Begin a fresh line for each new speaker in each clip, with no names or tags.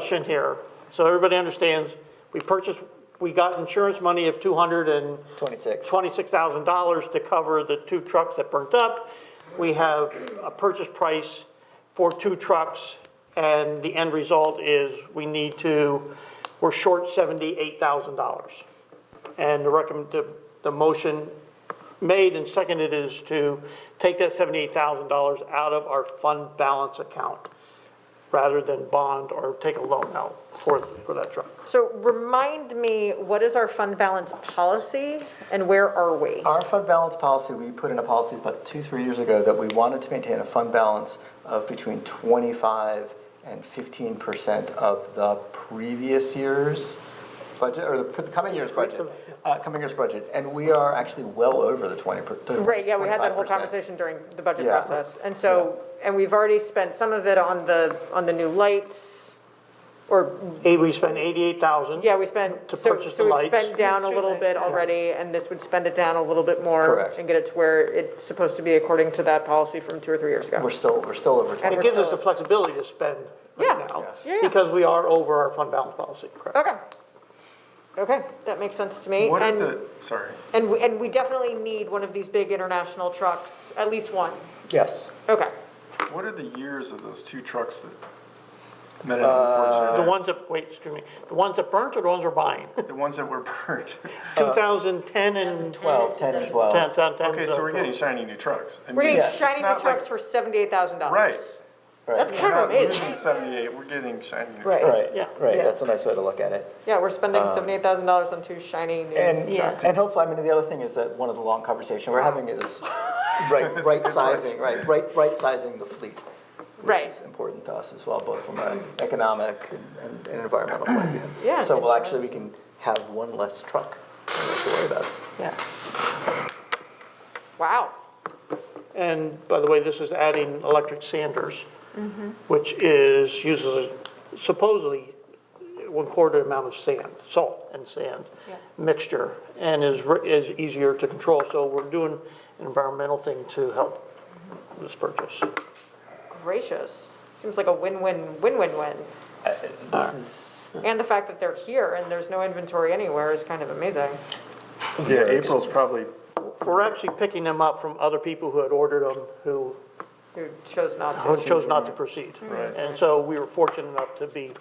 discussion here, so everybody understands, we purchased, we got insurance money of two hundred and
Twenty-six.
twenty-six thousand dollars to cover the two trucks that burnt up. We have a purchase price for two trucks, and the end result is we need to, we're short seventy-eight thousand dollars. And the recommend, the, the motion made and seconded is to take that seventy-eight thousand dollars out of our fund balance account rather than bond or take a loan out for, for that truck.
So remind me, what is our fund balance policy and where are we?
Our fund balance policy, we put in a policy about two, three years ago that we wanted to maintain a fund balance of between twenty-five and fifteen percent of the previous year's budget, or the the coming year's budget, uh, coming year's budget. And we are actually well over the twenty per, the
Right, yeah, we had that whole
25%.
conversation during the budget
Yeah.
process. And so, and we've already spent some of it on the, on the new lights, or,
Hey, we spent eighty-eight thousand.
yeah, we spent,
To
so,
purchase the
so we've
lights.
spent down a
Mystery
little
lights,
bit
yeah.
already, and this would spend it down a little bit more.
Correct.
And get it to where it's supposed to be according to that policy from two or three years ago.
We're still, we're still over twenty.
we're
It gives us
still-
the flexibility to spend
Yeah,
right now.
yeah, yeah.
Because we are over our fund balance policy, correct?
Okay. Okay, that makes sense to me.
What are
And-
the, sorry,
And, we- and we definitely need one of these big international trucks, at least one.
Yes.
Okay.
what are the years of those two trucks that? that had
The
unfortunately-
ones that, wait, excuse me, the ones that burnt or the ones we're buying?
Uh,
The ones that were burnt.
2010 and
12, 10 and 12.
10, 10, 10.
Okay, so we're getting shiny new trucks. I
We're
mean,
getting
it's
shiny new
not like-
trucks Oh, for seventy-eight thousand dollars.
Right.
That's
We're
kind
not
of
losing
amazing.
seventy-eight, we're getting shiny new trucks.
Right.
Right,
Yeah.
right,
Yeah.
that's a nice way to look at it.
Yeah, we're spending seventy-eight thousand dollars on two shiny new
And,
Yes.
and hopefully, I mean, the other thing is that one of the long conversation we're having is right, right sizing, right, right, right sizing the fleet.
Right.
Which is important to us as well, both from an economic and- and, and environmental point of view.
Yeah,
So we'll
makes
actually, we can have one less truck to worry about.
Yeah.
Wow.
And by the way, this is adding electric sanders,
Mm-hmm.
which is, uses supposedly one quarter amount of sand, salt and sand
Yeah.
mixture, and is, re- is easier to control. So we're doing an environmental thing to help this purchase.
Gracious. Seems like a win-win, win-win-win.
This is,
And the fact that they're here and there's no inventory anywhere is kind of amazing.
Yeah, April's probably,
We're actually picking them up from other people who had ordered them, who
Who chose not
who
to.
chose not to proceed.
Right.
And so we were fortunate enough to be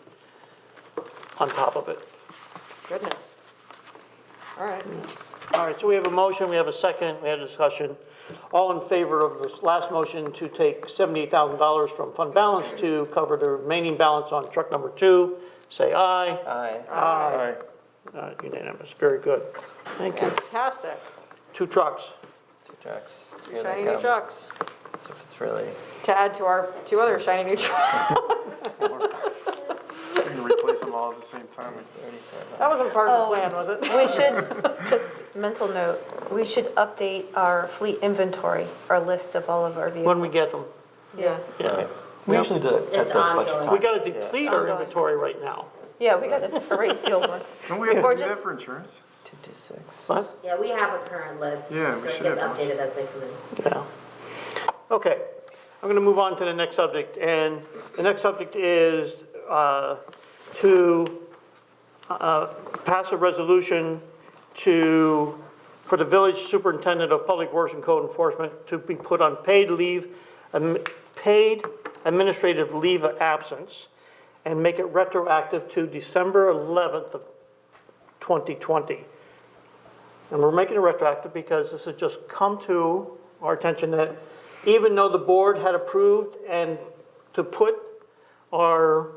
on top of it.
Goodness. All right.
All right, so we have a motion, we have a second, we had a discussion. All in favor of this last motion to take $78,000 from fund balance to cover the remaining balance on truck number two, say aye.
I,
Aye.
Uh, Unanimous, very good. Thank you.
Fantastic.
Two trucks.
two trucks.
Two
Here they
shiny new
come.
trucks
So it's really,
to add to our two other shiny new trucks.
we can replace them all at the same time.
That wasn't part of
Oh.
the plan, was it?
We should, just mental note, we should update our fleet inventory, our list of all of our
When
vehicles.
we get them,
Yeah,
yeah.
we usually do it at the budget time.
We got to deplete our inventory right now.
yeah, we gotta erase the old ones.
Don't we have
Or
to do that
just-
for insurance?
Two, two, six.
What?
Yeah, we have a current list.
Yeah, we should
So it gets
have one.
updated as they come in.
Yeah. Okay, I'm going to move on to the next subject, and the next subject is uh, to uh, pass a resolution to, for the village superintendent of public works and code enforcement to be put on paid leave, um, paid administrative leave of absence, and make it retroactive to December 11th of 2020. And we're making it retroactive because this has just come to our attention that even though the board had approved and to put our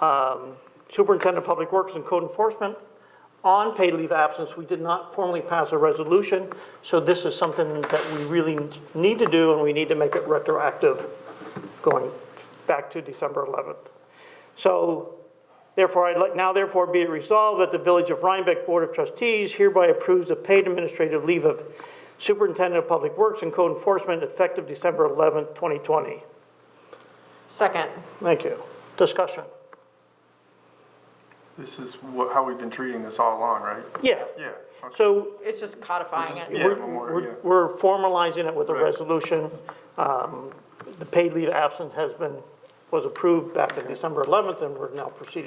um, superintendent of public works and code enforcement on paid leave absence, we did not formally pass a resolution. So this is something that we really need to do and we need to make it retroactive going back to December 11th. So Therefore, I'd like, now therefore be it resolved that the Village of Rhinebeck Board of Trustees hereby approves the paid administrative leave of Superintendent of Public Works and Code Enforcement effective December 11th, 2020.
Second.
Thank you. Discussion?
This is wha- how we've been treating this all along, right?
Yeah.
Yeah, okay.
So
It's just codifying it.
Yeah,
we're-
memorial, yeah.
we're we're formalizing it with a
Right.
resolution. Um, The paid leave absent has been, was approved back in December 11th, and we're now proceeding